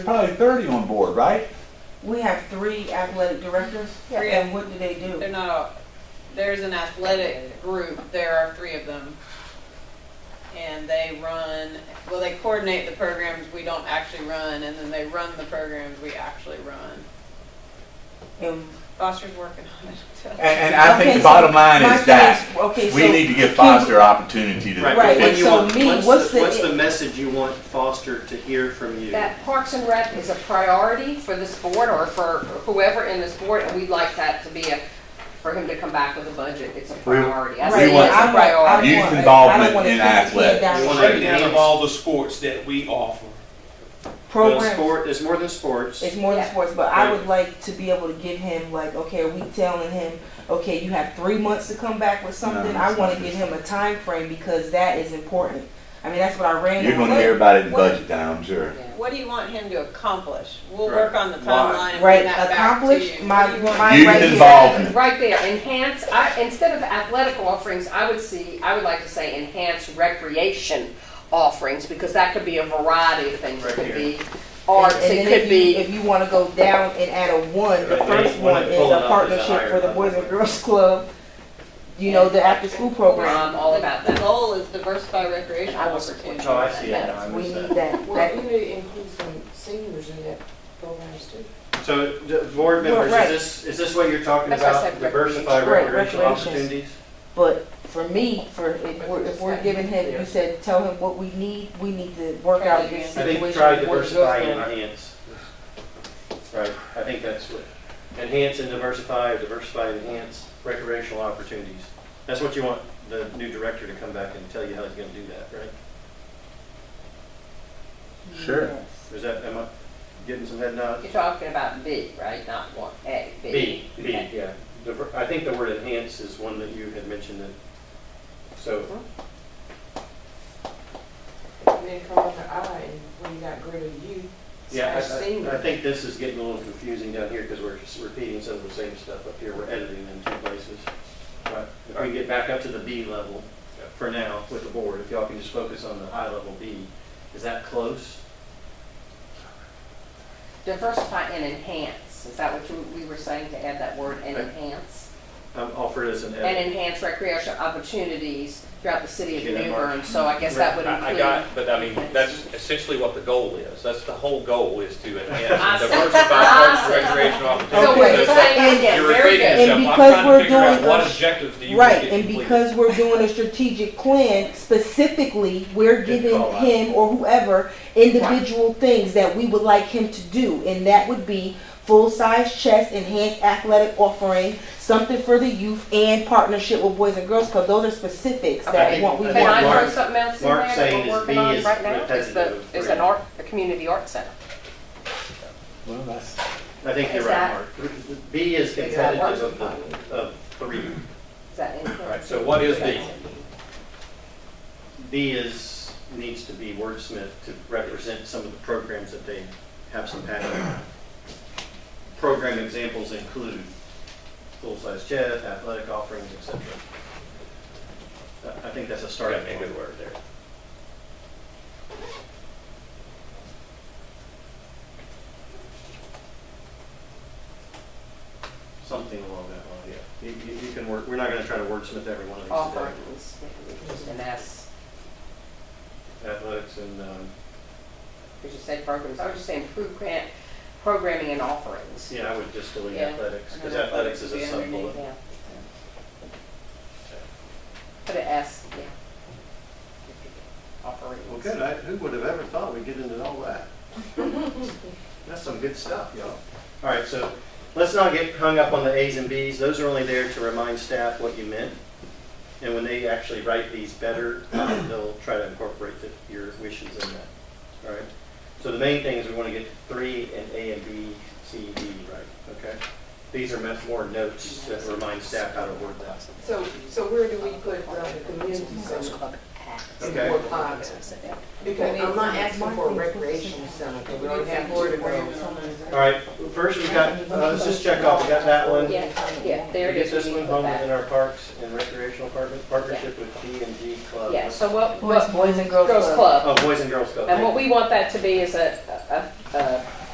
Probably 30 on board, right? We have three athletic directors, Yeah. and what do they do? They're not all, there's an athletic group, there are three of them. And they run, well, they coordinate the programs we don't actually run, and then they run the programs we actually run. And- Foster's working on it. And, and I think Okay, the bottom so line my is that thing is- Okay, we so, need to give Foster opportunity to. Right, Right, and but what you so want, me, what's what's the, the- what's the message you want Foster to hear from you? that Parks and Rec is a priority for this board or for whoever in this board, and we'd like that to be a, for him to come back with a budget, it's a priority. I right, say we want it's a I'm like, I priority. Youth want- I involvement don't wanna in put the kid athletics. down You the wanna street. make breakdown of all the sports that we offer. There's Program, sport, there's more than sports. it's more than Yeah. sports, but I Right. would like to be able to give him, like, okay, are we telling him, okay, you have three months to come back with something? I it's wanna not give him a time frame because that is important. I mean, that's what I ran. You're on. going to hear about it in budget time, I'm sure. What do you want him to accomplish? We'll Right. work on the timeline and Right, bring that back to accomplish you. my- What do you want? my- I'm Youth right here. involvement. Right there, enhance, I, instead of athletic offerings, I would see, I would like to say enhance recreation offerings, because that could be a variety of things. It Right could here. be And- arts, and it then if could you- be, If you wanna go down and add a one, the Right, first one one is pulling up a is a partnership higher for the level. Boys and Girls Club, you know, the after-school program. I'm all about The that. goal is diversify recreational I will support opportunities. Oh, I see it. I Yes, we missed need that. that. Well, we need to include some seniors in that program too. So, the board Well, members, right. is this, is this what you're talking That's why I about? said Diversify recreation. Right, recreational recreation. opportunities? But for me, for, if we're, if we're giving him, you said, tell him what we need, we need to work out this I situation. think try with Boys and Girls diversify and Club. enhance. Right, I think that's what, enhance and diversify, diversify and enhance recreational opportunities. That's what you want the new director to come back and tell you how he's gonna do that, right? Sure. Yes. Is that, am I getting some head nods? You're talking about B, right, not one, A, B. B, B, Okay. yeah. Diver- I think the word enhance is one that you had mentioned that, so, And then come up with I, and when you got greater youth, yeah, slash I- I, I senior. think this is getting a little confusing down here because we're just repeating some of the same stuff up here. We're editing in two places. But if we can get back up to the B level for now with the board, if y'all can just focus on the high level B, is that close? Diversify and enhance, is that what you, we were saying to add that word and Right. enhance? I'm offered as an And edit. enhance recreation opportunities throughout the city of Get that New mark. Bern, so I guess that would I- I include. got, but I mean, that's essentially what the goal is. That's the whole goal is to I enhance see. and diversify parks and recreation So Okay. what you're opportunities. saying And- again, You're very repeating good. And yourself. I'm because trying we're to figure out doing a- what objectives do you want to Right, get and completed? because we're doing a strategic plan, specifically, we're Good giving call out. him or whoever individual things that we would like him to do, and that would be full-size chess, enhanced athletic offering, something for the youth, and partnership with Boys and Girls Club, those are specifics Okay. that I want, we I Can want. I Mark- throw something else in Mark there saying that is we're B working on is right now? Is the, repetitive. is an art, a community art center. Well, that's. I think you're Is right, that- Mark. B is that competitive of the, of three. Is that Right, influence? so what is the, B is, needs to be wordsmith to represent some of the programs that they have some passion. Program examples include full-size chess, athletic offerings, etc. I- I think that's a sorry, starting I made a point. good word there. Something along that line, yeah. You, you- you can work, we're not gonna try to wordsmith every one of these today. Offerings, maybe we can just- and that's, Athletics and, um, we just said programs, I was just saying program, programming and offerings. yeah, I would just delete Yeah. athletics, because And then athletics is a athletics would be sub-bullet. Yeah. Put an S, yeah. Offerings. Well, good, I, who would have ever thought we'd get into all that? That's some good stuff, y'all. All right, so let's not get hung up on the As and Bs. Those are only there to remind staff what you meant. And when they actually write these better, uh, they'll try to incorporate the- your wishes in that. All right? So the main thing is we want to get three and A and B, C, D right, okay? These are meant more notes that remind staff how to word that. So, so where do we put around the community center? Okay. And what pockets? Because I'm not asking for a recreation center, because we don't have board of All right, first we've got, uh, let's just check off, we got that one. Yeah, yeah, there it Get is. this We one need to home put that. within our parks and recreational partner- partnership with B and G Club. Yeah, so what, Boys, what, Boys and Girls Girls Club. Oh, Club. Boys and Girls Club. And what we want that to be is a,